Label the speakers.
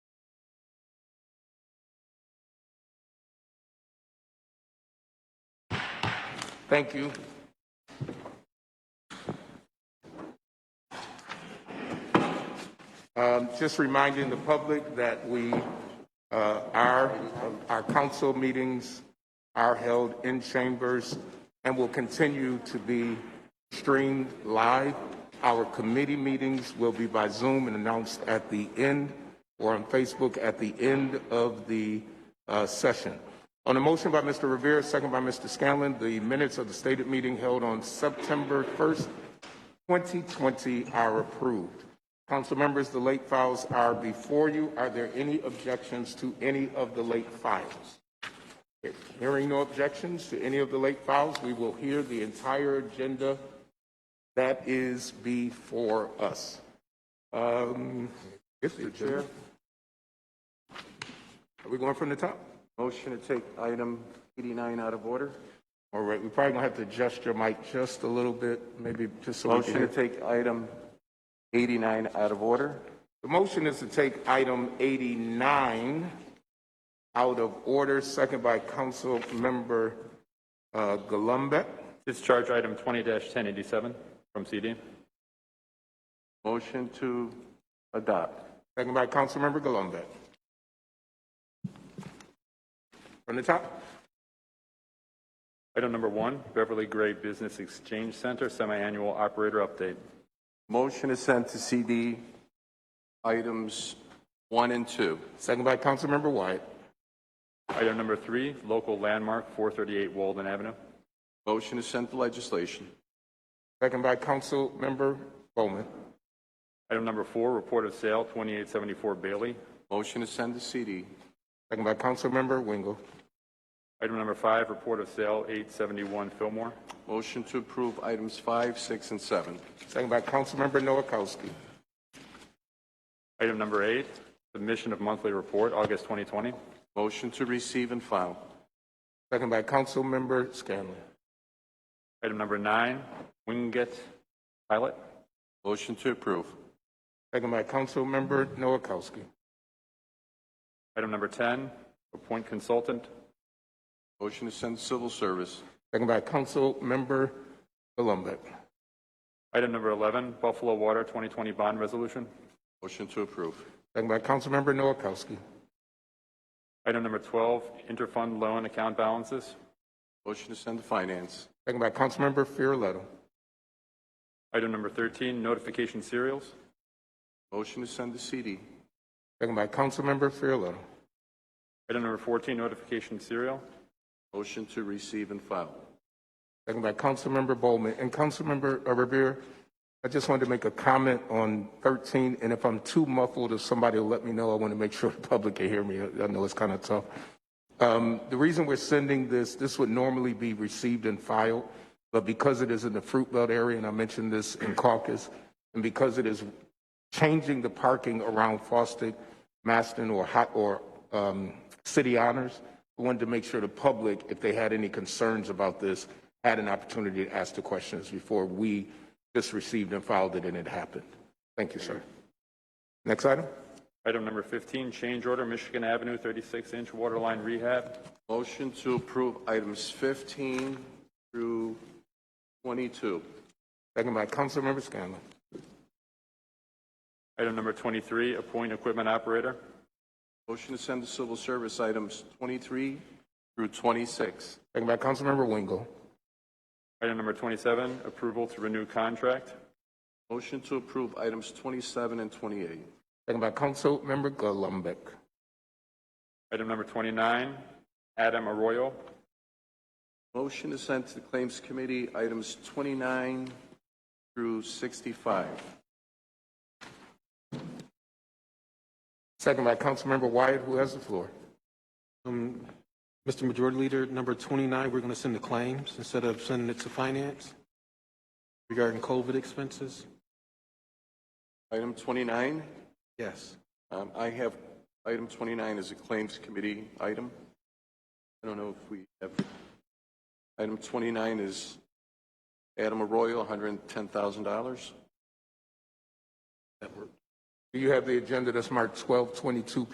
Speaker 1: Thank you. Um, Just reminding the public that we, uh, our, our council meetings are held in chambers and will continue to be streamed live. Our committee meetings will be by Zoom and announced at the end or on Facebook at the end of the uh, session. On a motion by Mr. Revere, second by Mr. Scanlon, the minutes of the stated meeting held on September 1st, 2020 are approved. Council members, the late files are before you. Are there any objections to any of the late files? Hearing no objections to any of the late files, we will hear the entire agenda that is before us. Um, Mr. Chair, are we going from the top?
Speaker 2: Motion to take item 89 out of order.
Speaker 1: All right, we probably gonna have to adjust your mic just a little bit, maybe just so we can
Speaker 2: Motion to
Speaker 1: hear.
Speaker 2: take item 89 out of order.
Speaker 1: The motion is to take item 89 out of order, second by Councilmember uh, Gullumbeck.
Speaker 3: Discharge item 20-1087 from CD.
Speaker 2: Motion to adopt.
Speaker 1: second by Councilmember Gullumbeck. From the top,
Speaker 3: Item number one, Beverly Gray Business Exchange Center Semi-Annual Operator Update.
Speaker 2: Motion to send to CD items 1 and 2.
Speaker 1: second by Councilmember Wyatt.
Speaker 3: Item number three, Local Landmark 438 Walden Avenue.
Speaker 2: Motion to send to legislation.
Speaker 1: second by Councilmember Bowman.
Speaker 3: Item number four, Report of Sale 2874 Bailey.
Speaker 2: Motion to send to CD.
Speaker 1: second by Councilmember Wingo.
Speaker 3: Item number five, Report of Sale 871 Fillmore.
Speaker 2: Motion to approve items 5, 6, and 7.
Speaker 1: second by Councilmember Noakowski.
Speaker 3: Item number eight, Submission of Monthly Report, August 2020.
Speaker 2: Motion to receive and file.
Speaker 1: second by Councilmember Scanlon.
Speaker 3: Item number nine, Winget Pilot.
Speaker 2: Motion to approve.
Speaker 1: second by Councilmember Noakowski.
Speaker 3: Item number 10, Appoint Consultant.
Speaker 2: Motion to send to civil service.
Speaker 1: second by Councilmember Gullumbeck.
Speaker 3: Item number 11, Buffalo Water 2020 Bond Resolution.
Speaker 2: Motion to approve.
Speaker 1: Second by Councilmember Noakowski.
Speaker 3: Item number 12, interfund loan account balances.
Speaker 2: Motion to send to finance.
Speaker 1: Second by Councilmember Farrelletto.
Speaker 3: Item number 13, notification serials.
Speaker 2: Motion to send to CD.
Speaker 1: Second by Councilmember Farrelletto.
Speaker 3: Item number 14, notification serial.
Speaker 2: Motion to receive and file.
Speaker 1: Second by Councilmember Bowman. And Councilmember uh, Revere, I just wanted to make a comment on 13, and if I'm too muffled, if somebody will let me know, I want to make sure the public can hear me. I I know it's kind of tough. Um, The reason we're sending this, this would normally be received and filed, but because it is in the Fruit Belt area, and I mentioned this in caucus, and because it is changing the parking around Fosdick, Maston, or Hot, or um, City Honors. We wanted to make sure the public, if they had any concerns about this, had an opportunity to ask the questions before we just received and filed it and it happened. Thank you, sir. Next item?
Speaker 3: Item number 15, change order Michigan Avenue 36-inch water line rehab.
Speaker 2: Motion to approve items 15 through 22.
Speaker 1: Second by Councilmember Scanlon.
Speaker 3: Item number 23, appoint equipment operator.
Speaker 2: Motion to send to civil service items 23 through 26.
Speaker 1: Second by Councilmember Wingo.
Speaker 3: Item number 27, approval to renew contract.
Speaker 2: Motion to approve items 27 and 28.
Speaker 1: Second by Councilmember Gullumbeck.
Speaker 3: Item number 29, Adam Arroyo.
Speaker 2: Motion to send to the Claims Committee items 29 through 65.
Speaker 1: Second by Councilmember Wyatt, who has the floor.
Speaker 4: Um, Mr. Majority Leader, number 29, we're going to send the claims instead of sending it to finance regarding COVID expenses?
Speaker 2: Item 29,
Speaker 4: Yes.
Speaker 2: um, I have, item 29 is a Claims Committee item. I don't know if we have, item 29 is Adam Arroyo, $110,000.
Speaker 1: Do you have the agenda that's marked 1222